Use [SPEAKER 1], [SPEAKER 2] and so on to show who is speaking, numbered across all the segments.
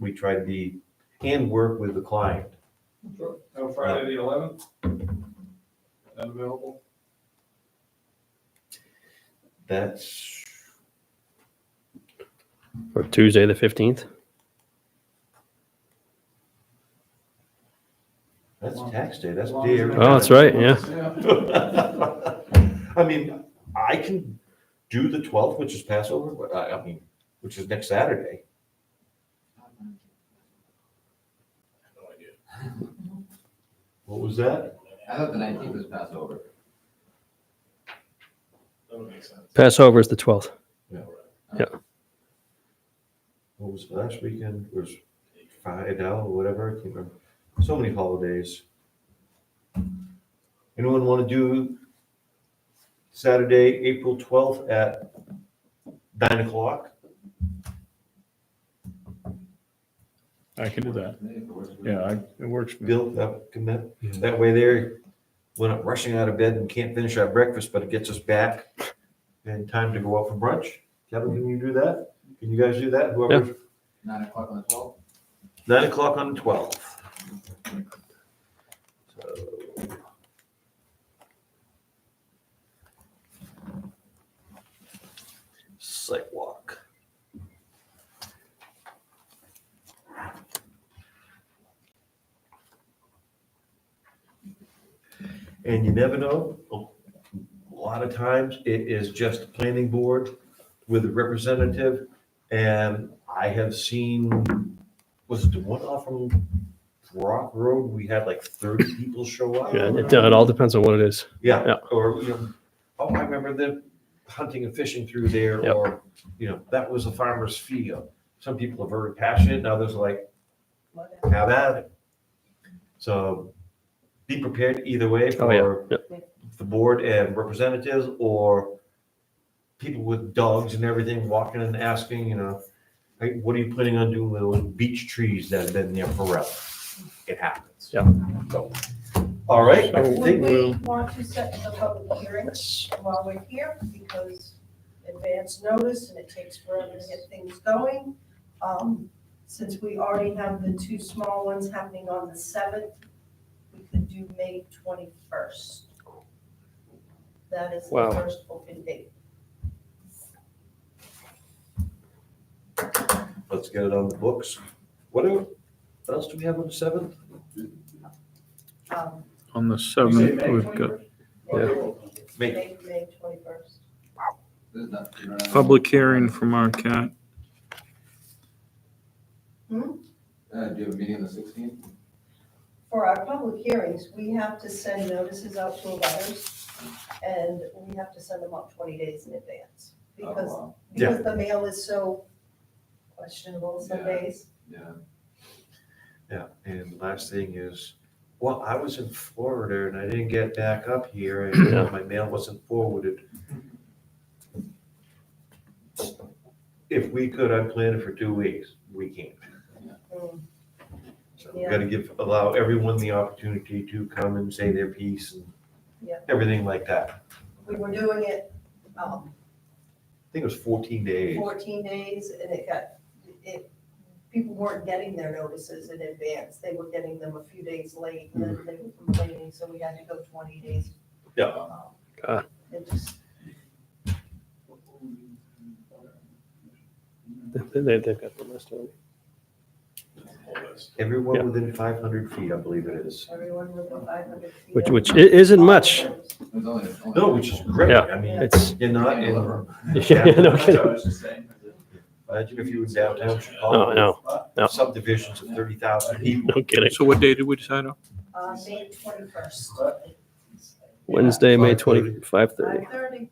[SPEAKER 1] we try to be, and work with the client.
[SPEAKER 2] Sure. No, Friday the eleventh? Unavailable?
[SPEAKER 1] That's,
[SPEAKER 3] Or Tuesday the fifteenth.
[SPEAKER 1] that's tax day, that's
[SPEAKER 2] As
[SPEAKER 1] the
[SPEAKER 2] long
[SPEAKER 1] day.
[SPEAKER 2] as-
[SPEAKER 1] everybody-
[SPEAKER 3] Oh, that's right, yeah.
[SPEAKER 1] I mean, I can do the twelfth, which is Passover, but I, I mean, which is next Saturday. What was that?
[SPEAKER 4] I thought the nineteenth was Passover.
[SPEAKER 2] That'll make sense.
[SPEAKER 3] Passover is the twelfth.
[SPEAKER 1] What was last weekend? It was Friday now, or whatever, I can't remember. So many holidays. Anyone want to do Saturday, April twelfth at nine o'clock?
[SPEAKER 5] I can do that. Yeah, I, it works. for me.
[SPEAKER 1] Bill, that, can that- that way there, we're not rushing out of bed and can't finish our breakfast, but it gets us back in time to go out for brunch. Kevin, can you do that? Can you guys do that? Whoever,
[SPEAKER 4] Nine o'clock on the twelfth?
[SPEAKER 1] nine o'clock on the twelfth. So, Site walk. And you never know, a lot of times it is just the planning board with a representative. And I have seen, was it the one off from Rock Road? We had like thirty people show up.
[SPEAKER 3] Yeah, it, uh, it all depends on what it is.
[SPEAKER 1] Yeah,
[SPEAKER 3] Yeah.
[SPEAKER 1] or, you know, oh, I remember them hunting and fishing through there,
[SPEAKER 3] Yep.
[SPEAKER 1] or, you know, that was a farmer's field. Some people are very passionate, and others are like, have at it. So be prepared either way
[SPEAKER 3] Oh, yeah.
[SPEAKER 1] for
[SPEAKER 3] Yep.
[SPEAKER 1] the board and representatives, or people with dogs and everything walking and asking, you know, hey, what are you planning on doing with those beech trees that have been there forever? It happens.
[SPEAKER 3] Yeah.
[SPEAKER 1] So, all right, I
[SPEAKER 5] So-
[SPEAKER 1] think
[SPEAKER 6] Would we
[SPEAKER 5] Well-
[SPEAKER 6] want to set the public hearing while we're here because advance notice and it takes forever to get things going? Um, Since we already have the two small ones happening on the seventh, we could do May twenty-first. That is the
[SPEAKER 3] Wow.
[SPEAKER 6] first open date.
[SPEAKER 1] Let's get it on the books. What el- what else do we have on the seventh?
[SPEAKER 6] Um,
[SPEAKER 5] On the
[SPEAKER 2] You say
[SPEAKER 5] seventh,
[SPEAKER 2] May
[SPEAKER 5] we've got
[SPEAKER 2] 21st?
[SPEAKER 1] May.
[SPEAKER 6] May, May twenty-first.
[SPEAKER 4] There's not- you don't have-
[SPEAKER 5] public hearing from our cat.
[SPEAKER 4] Uh, do you have a meeting on the sixteenth?
[SPEAKER 6] For our public hearings, we have to send notices out to abutters, and we have to send them out twenty days in advance.
[SPEAKER 4] Oh,
[SPEAKER 6] Because, because the mail is so questionable some
[SPEAKER 4] Yeah.
[SPEAKER 6] days.
[SPEAKER 4] Yeah,
[SPEAKER 1] Yeah, and last thing is, well, I was in Florida and I didn't get back up here and
[SPEAKER 3] Yeah.
[SPEAKER 1] my mail wasn't forwarded. If we could, I'd plan it for two weeks. We can't.
[SPEAKER 6] Mm.
[SPEAKER 1] So we gotta give, allow everyone the opportunity to come and say their piece and
[SPEAKER 6] Yeah.
[SPEAKER 1] everything like that.
[SPEAKER 6] We were doing it, um,
[SPEAKER 1] I think it was fourteen days.
[SPEAKER 6] fourteen days, and it got, it, people weren't getting their notices in advance. They were getting them a few days late, and then they were complaining, so we had to go twenty days.
[SPEAKER 1] Yeah.
[SPEAKER 6] Um,
[SPEAKER 3] God.
[SPEAKER 6] It just,
[SPEAKER 3] They, they, they've got the list. already. Yeah.
[SPEAKER 1] Everyone within five hundred feet, I believe it is.
[SPEAKER 6] Everyone within five hundred feet.
[SPEAKER 3] Which
[SPEAKER 6] of-
[SPEAKER 3] which i- isn't much.
[SPEAKER 4] there's only. only-
[SPEAKER 1] No, which is great.
[SPEAKER 3] Yeah.
[SPEAKER 1] I mean,
[SPEAKER 3] It's
[SPEAKER 1] you're not in.
[SPEAKER 3] yeah, no
[SPEAKER 2] That's what I
[SPEAKER 3] kidding.
[SPEAKER 2] was just saying.
[SPEAKER 1] Imagine if you were downtown
[SPEAKER 3] No,
[SPEAKER 1] Chicago,
[SPEAKER 3] no, no.
[SPEAKER 1] subdivisions of thirty thousand people.
[SPEAKER 3] no kidding.
[SPEAKER 5] So what day did we decide on?
[SPEAKER 6] Uh, May twenty-first.
[SPEAKER 3] Wednesday, May twenty
[SPEAKER 1] 5:30.
[SPEAKER 3] five thirty.
[SPEAKER 6] Five thirty,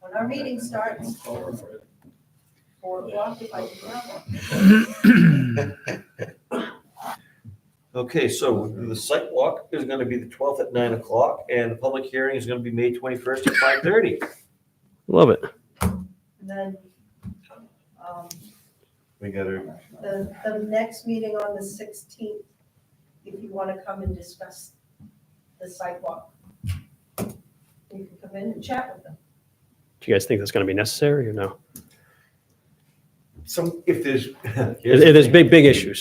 [SPEAKER 6] when our meeting starts, four o'clock if I can travel.
[SPEAKER 1] Okay, so the site walk is gonna be the twelfth at nine o'clock, and the public hearing is gonna be May twenty-first at five thirty.
[SPEAKER 3] Love it.
[SPEAKER 6] And then, um,
[SPEAKER 1] We gotta,
[SPEAKER 6] the, the next meeting on the sixteenth, if you wanna come and discuss the sidewalk. You can come in and chat with them.
[SPEAKER 3] Do you guys think that's going to be necessary or no?
[SPEAKER 7] some, if there's.
[SPEAKER 1] It it is big, big issues.